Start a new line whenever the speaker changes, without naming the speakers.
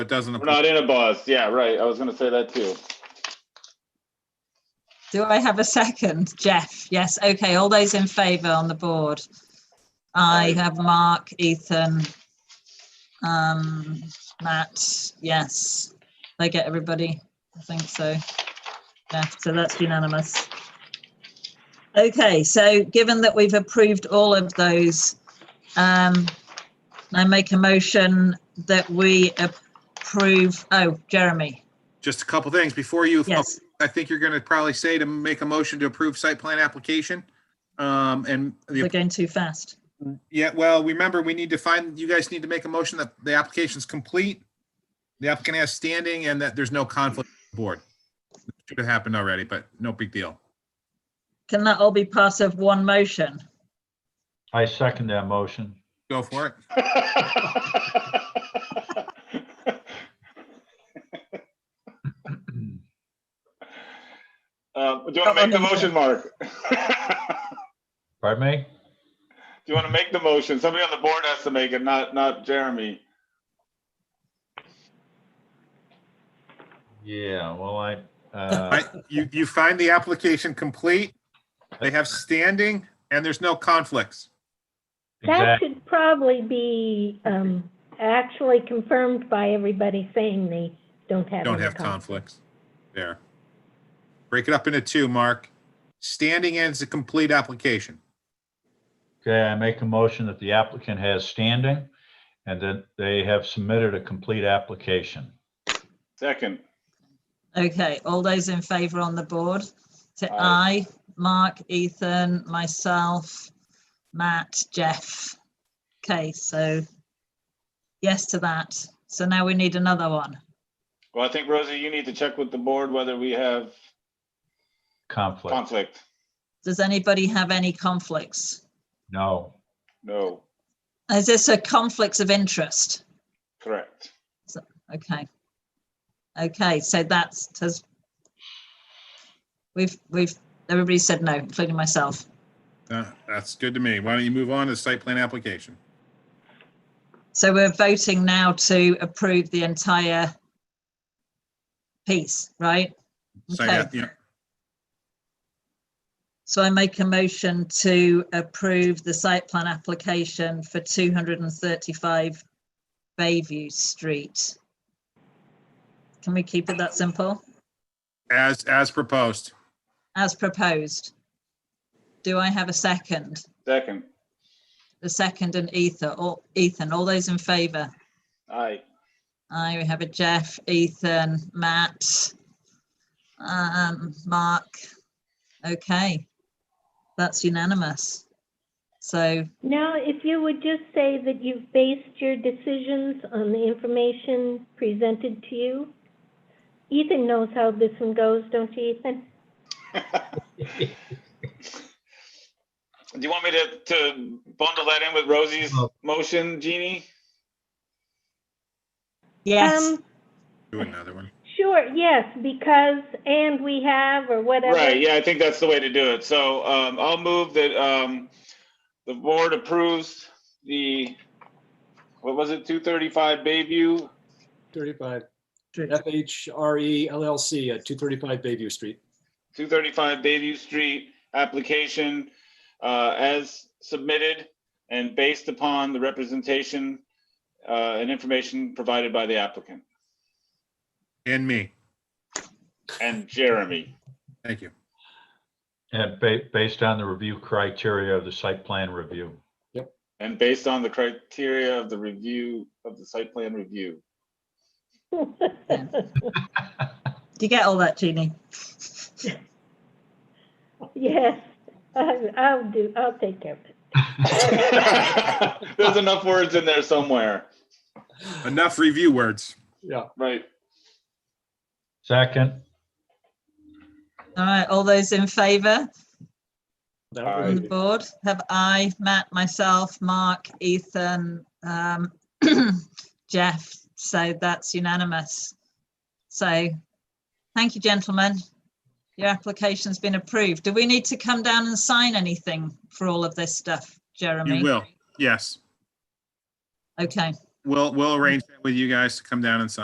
It doesn't
We're
apply.
not in a bus. Yeah, right. I was gonna say that too.
Do I have a second? Jeff, yes, okay, all those in favour on the board? I
Aye.
have Mark, Ethan, um, Matt, yes. They get everybody, I think so. Yeah, so that's unanimous. Okay, so given that we've approved all of those, um, I make a motion that we approve, oh, Jeremy,
Just a couple things before you.
yes.
I think you're gonna probably say to make a motion to approve site plan application. Um, and
We're
the,
going too fast.
yeah, well, remember, we need to find, you guys need to make a motion that the application's complete. The applicant has standing and that there's no conflict with the board. Should have happened already, but no big deal.
Can that all be part of one motion?
I second that motion.
Go for it.
Um, do you want to make the motion, Mark? Do
Pardon me?
you want to make the motion? Somebody on the board has to make it, not, not Jeremy.
Yeah, well, I, uh,
I- You, you find the application complete, they have standing and there's no conflicts.
That
exactly,
should probably be um, actually confirmed by everybody saying they don't have.
Don't
any
have conflicts. There. Break it up into two, Mark. Standing ends a complete application.
okay, I make a motion that the applicant has standing and that they have submitted a complete application.
Second.
Okay, all those in favour on the board? Say
Aye.
aye, Mark, Ethan, myself, Matt, Jeff. Okay, so yes to that. So now we need another one.
Well, I think Rosie, you need to check with the board whether we have
Conflict,
conflict.
Does anybody have any conflicts?
no.
No,
Is this a conflicts of interest?
correct.
Okay. Okay, so that's, has we've, we've, everybody said no, including myself.
Uh, That's good to me. Why don't you move on to site plan application?
So we're voting now to approve the entire piece, right?
Site
Okay,
app- yeah.
so I make a motion to approve the site plan application for two hundred and thirty-five Bayview Street. Can we keep it that simple?
As, as proposed.
As proposed. Do I have a second?
Second.
The second and Ethan, all, Ethan, all those in favour?
Aye.
Aye, we have a Jeff, Ethan, Matt, um, Mark. Okay, that's unanimous. So,
Now, if you would just say that you've based your decisions on the information presented to you. Ethan knows how this one goes, don't you, Ethan?
Do you want me to, to bundle that in with Rosie's motion, Jeannie?
yes,
Um,
Do another one.
Sure, yes, because, and we have, or whatever.
Right, yeah, I think that's the way to do it. So um, I'll move that um, the board approves the, what was it, 235 Bayview?
35 FHRE LLC at 235 Bayview Street.
235 Bayview Street application uh, as submitted and based upon the representation uh, and information provided by the applicant
And me.
and Jeremy.
Thank you.
And ba- based on the review criteria of the site plan review.
And based on the criteria of the review of the site plan review.
do you get all that, Jeannie?
Yes, I- I'll do, I'll take care of it.
There's enough words in there somewhere.
Enough review words.
Yeah,
Right.
Second,
All right, all those in favour
that
Aye.
on the
would be-
board? Have I, Matt, myself, Mark, Ethan, um, Jeff, so that's unanimous. So, thank you, gentlemen. Your application's been approved. Do we need to come down and sign anything for all of this stuff, Jeremy?
You will. Yes.
Okay.
We'll, we'll arrange that with you guys to come down and sign.